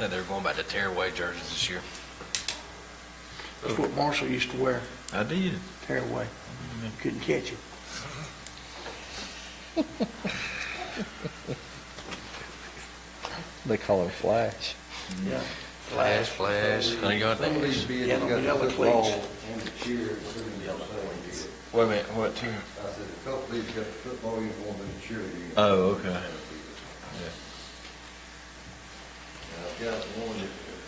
Yeah, they're going back to tearaway jerseys this year. That's what Marshall used to wear, I did. tear away. Couldn't catch him. They call him Flash. Yeah. Flash, flash. Thank God they- Somebody's being, Yeah, got the the yellow football cleats. and the cheer, it's gonna be a football game. Wait a minute, what team? I said, the couple has got the football uniform and the cheerleading. Oh, okay. And I've got one that uh,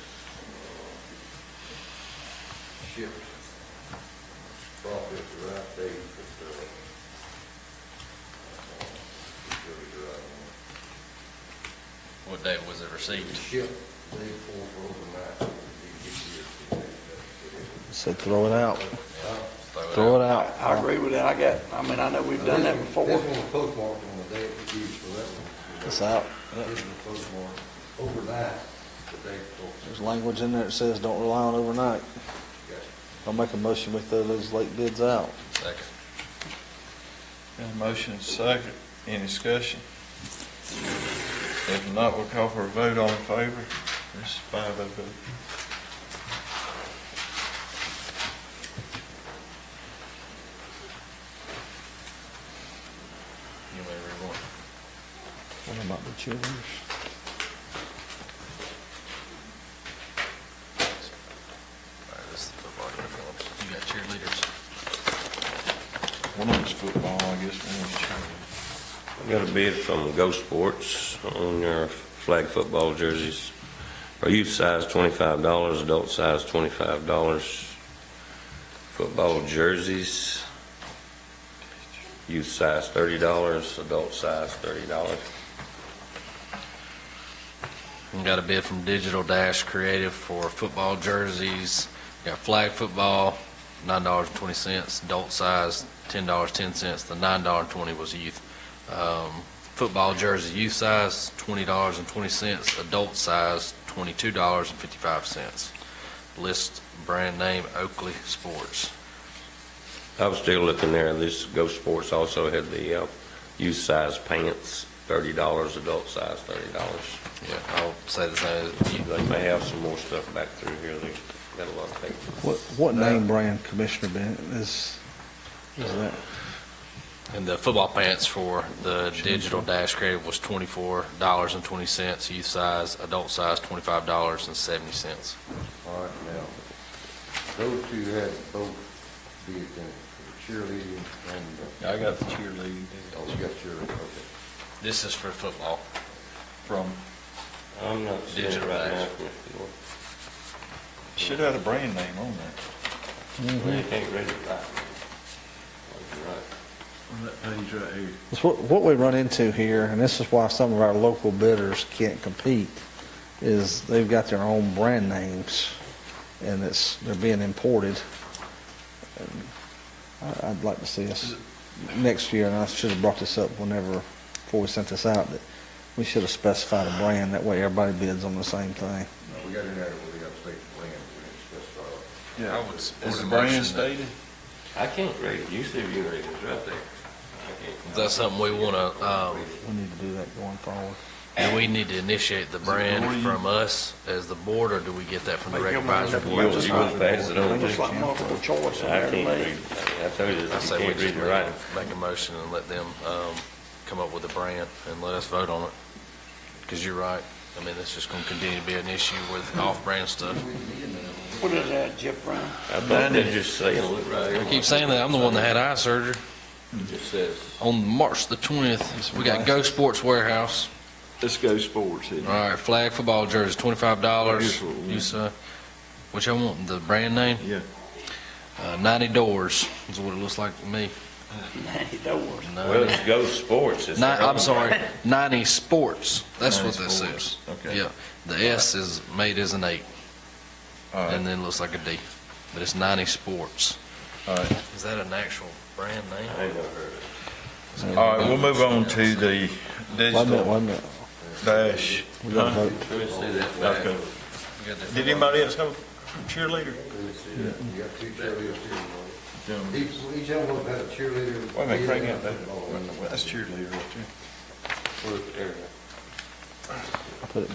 shipped, probably at the right date, but, uh, uh, it's really the right one. What date was it It received? shipped day before overnight, it didn't get here till day, but it was- So throw it out. Throw it Throw out. it out. I agree with that. I got, I mean, I know we've done that This one- before. This one was postmarked on the day it was used, so that one. It's out. This was postmarked overnight, the day before. There's language in there that says don't rely on overnight. Got I'll make a motion we throw those late bids out. Second. Got a motion and a second. Any discussion? If not, we'll call for a vote. All in favor? This is five oh vote. You may read one. What about the cheerleaders? All right, this is the football uniforms. You got cheerleaders. One of them's football, I guess, one of them's I got a bid from Go Sports on their flag football jerseys. For youth size, twenty-five dollars, adult size, twenty-five dollars. Football jerseys, youth size, thirty dollars, adult size, thirty dollars. Got a bid from Digital Dash Creative for football jerseys. Got flag football, nine dollars and twenty cents, adult size, ten dollars, ten cents. The nine dollar and twenty was youth. Um, football jersey, youth size, twenty dollars and twenty cents, adult size, twenty-two dollars and fifty-five cents. List brand name Oakley Sports. I was still looking there, this Go Sports also had the, uh, youth size pants, thirty dollars, adult size, thirty dollars. Yeah, I'll say the same. They may have some more stuff back through here, they got a lot of things. What, what name brand Commissioner Bennett is, is that? And the football pants for the digital dash creative was twenty-four dollars and twenty cents, youth size, adult size, twenty-five dollars and seventy cents. All right, now, those two had both bids in, it, the cheerleading and, cheerleading. I got the cheerleading the- oh, you got cheerleading, okay. This is for football. from, I'm not seeing it Digital right now. action. should have had a brand name on there. Well, you can't read it right. You're right. On that page right here. It's what, what we run into here, and this is why some of our local bidders can't compete, is they've got their own brand names, and it's, they're being imported. And I, I'd like to see us next year, and I should have brought this up whenever, before we sent this out, that we should have specified a brand, that way everybody bids on the same thing. Now, we got in there, we got state land, we didn't specify. I would support Is a motion the brand that- stated? I can't read it. Usually you can read it. It's right there. I can't. Is that something we want to, um, We need to do that going forward. do we need to initiate the brand Lori? from us as the board, or do we get that from the rec advisory Make them board? up. You wouldn't pass it on, Just just, I like multiple choice in there can't to read me. it. I told you, I this, you say we can't just read it right. make a motion and let them, um, come up with a brand and let us vote on it. Because you're right. I mean, it's just going to continue to be an issue with off-brand stuff. What is that, Jeff Brown? I thought they just saying, look right here. I keep saying that. I'm the one that had eye surgery. It just says. On March the 20th, we got Go Sports Warehouse. Let's go sports here. All right, flag football jersey, twenty-five dollars. Here's what we You saw, which I want, the brand name, Yeah. uh, ninety doors is what it looks like to me. Ninety doors. Well, Ninety, it's Go Sports. It's Ni- their I'm own sorry, brand. ninety sports. That's what 90 that Sports, says. okay. Yeah, the S is made as an eight, All and right, then looks like a D, but it's ninety sports. all right. Is that an actual brand name? I ain't never heard of it. All right, we'll move on to the Wait a minute, wait digital a minute. dash. We gotta Huh? vote. Let me see that back. Okay. We got that- Did anybody else have a cheerleader? You got two cheerleaders, cheerleaders. Gentlemen. Each, each of them had a cheerleader. Oh, Wait a minute, Craig, bid yeah, and a that, football. that's cheerleader right there. Where's the area? Put it